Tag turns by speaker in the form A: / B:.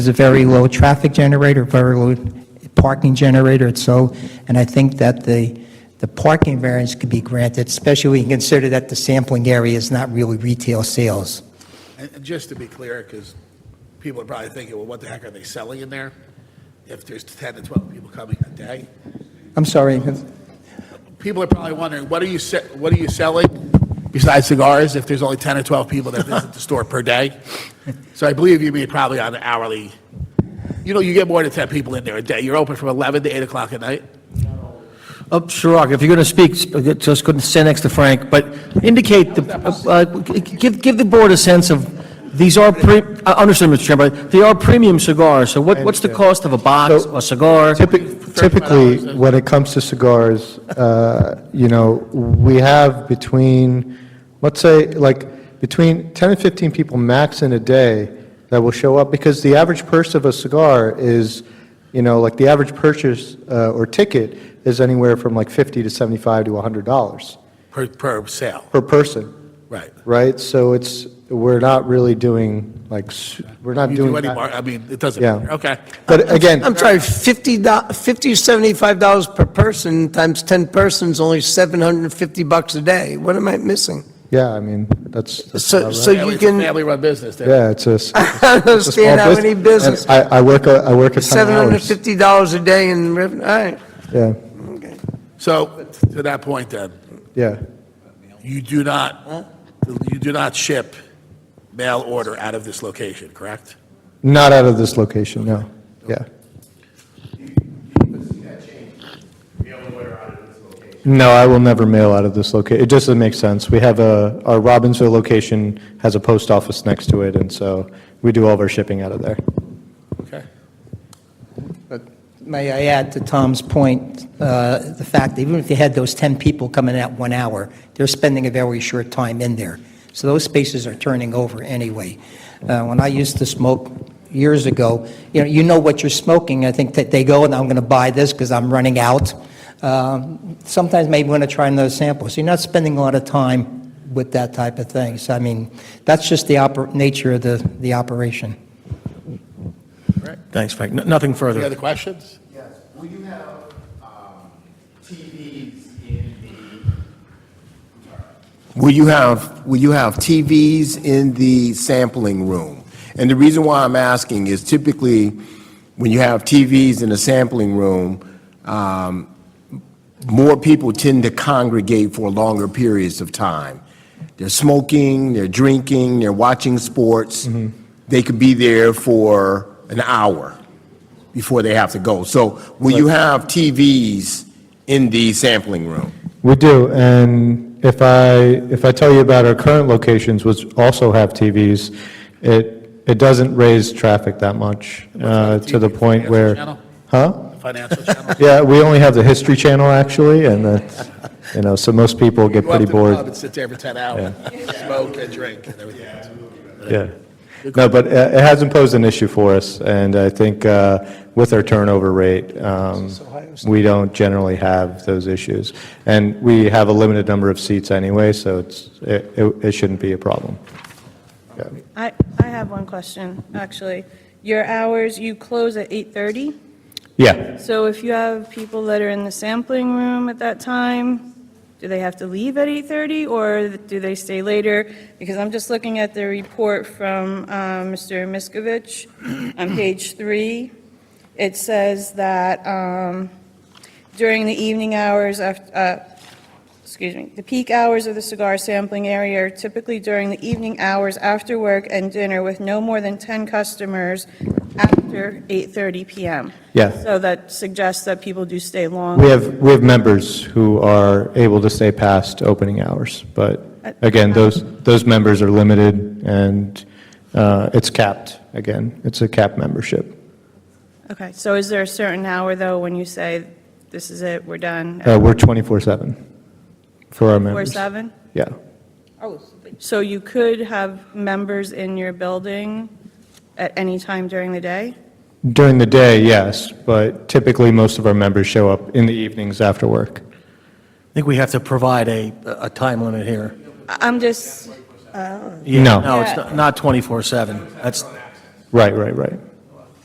A: It's a very low traffic generator, very low parking generator, it's so, and I think that the, the parking variance could be granted, especially when you consider that the sampling area is not really retail sales.
B: And and just to be clear, because people are probably thinking, well, what the heck are they selling in there? If there's 10 to 12 people coming a day,
A: I'm sorry,
B: people are probably wondering, what are you, se- what are you selling besides cigars if there's only 10 or 12 people that visit the store per day? So I believe you mean probably on an hourly, you know, you get more than 10 people in there a day. You're open from 11 to 8 o'clock at night?
C: Oh, Shirag, if you're going to speak, sp- uh, just couldn't sit next to Frank, but indicate, the uh, give, give the board a sense of, these are, pre- I understand, Mr. Chairman, but they are premium cigars, so what, what's the cost of a box,
D: So-
C: a cigar?
D: Typi- Typically, when it comes to cigars, uh, you know, we have between, let's say, like, between 10 and 15 people max in a day that will show up, because the average purse of a cigar is, you know, like, the average purchase uh, or ticket is anywhere from like 50 to 75 to $100
B: Per, per sale,
D: per person,
B: right.
D: right? So it's, we're not really doing, like, s- we're not
B: You
D: doing
B: do any
D: that-
B: mar- I mean, it doesn't
D: Yeah.
B: matter, okay.
D: But again.
E: I'm sorry, 50, do- 50 or 75 dollars per person times 10 persons, only 750 bucks a day. What am I missing?
D: Yeah, I mean, that's. that's
E: So-
D: about
E: so
D: right.
E: you
B: It's a
E: can-
B: Family-run business there.
D: Yeah, it's a. s-
E: I don't
D: it's a small
E: understand how
D: bus-
E: any business,
D: and I, I work, a- I work a ton of hours.
E: $750 a day in revenue, all right.
D: Yeah,
B: So to that point then,
D: yeah.
B: You do not, you do not ship mail order out of this location, correct?
D: Not out of this location, no. Yeah. No, I will never mail out of this location. It just doesn't make sense. We have a, our Robbinsville location has a post office next to it, and so we do all of our shipping out of there.
B: Okay.
A: May I add to Tom's point, uh, the fact that even if you had those 10 people coming out one hour, they're spending a very short time in there. So those spaces are turning over anyway. Uh, When I used to smoke years ago, you know, you know what you're smoking. I think that they go, and I'm going to buy this because I'm running out. Um, Sometimes maybe want to try another sample. So you're not spending a lot of time with that type of thing. So I mean, that's just the oper- nature of the the operation.
C: Thanks, Frank, No- nothing
B: Any
C: further.
B: other questions?
F: Yes, will you have um, TVs in the, will you have, will you have TVs in the sampling room? And the reason why I'm asking is typically, when you have TVs in the sampling room, um, more people tend to congregate for longer periods of time. They're smoking, they're drinking, they're watching sports. They could be there for an hour before they have to go. So will you have TVs in the sampling room?
D: We do, and if I, if I tell you about our current locations, which also have TVs, it, it doesn't raise traffic that much, uh, to the
B: TV?
D: point where.
B: Channel?
D: Huh?
B: Financial channel?
D: Yeah, we only have the History Channel, actually, and that's, you know, so most people get
B: Go up
D: pretty
B: to the club
D: bored.
B: and sit there for 10 hours, smoke and drink and everything. else.
D: Yeah. No, but uh, it hasn't posed an issue for us, and I think uh, with our turnover rate, um, we don't generally have those issues. And we have a limited number of seats anyway, so it's, it, it it shouldn't be a problem.
G: I, I have one question, actually. Your hours, you close at 8:30,
D: Yeah,
G: so if you have people that are in the sampling room at that time, do they have to leave at 8:30, or do they stay later? Because I'm just looking at the report from um, Mr. Miskovich on page three. It says that um, during the evening hours, af- uh, excuse me, the peak hours of the cigar sampling area are typically during the evening hours after work and dinner with no more than 10 customers after 8:30 PM.
D: Yeah.
G: So that suggests that people do stay long.
D: we have, we have members who are able to stay past opening hours, but again, those, those members are limited, and uh, it's capped, again, it's a capped membership.
G: Okay, so is there a certain hour, though, when you say, this is it, we're done?
D: Uh, We're 24/7 for our
G: Or
D: members.
G: 7?
D: Yeah,
G: So you could have members in your building at any time during the day?
D: during the day, yes, but typically, most of our members show up in the evenings after work.
C: I think we have to provide a, a time limit here.
G: I- I'm just,
D: No,
C: No, it's not- not 24/7, that's,
D: right, right, right.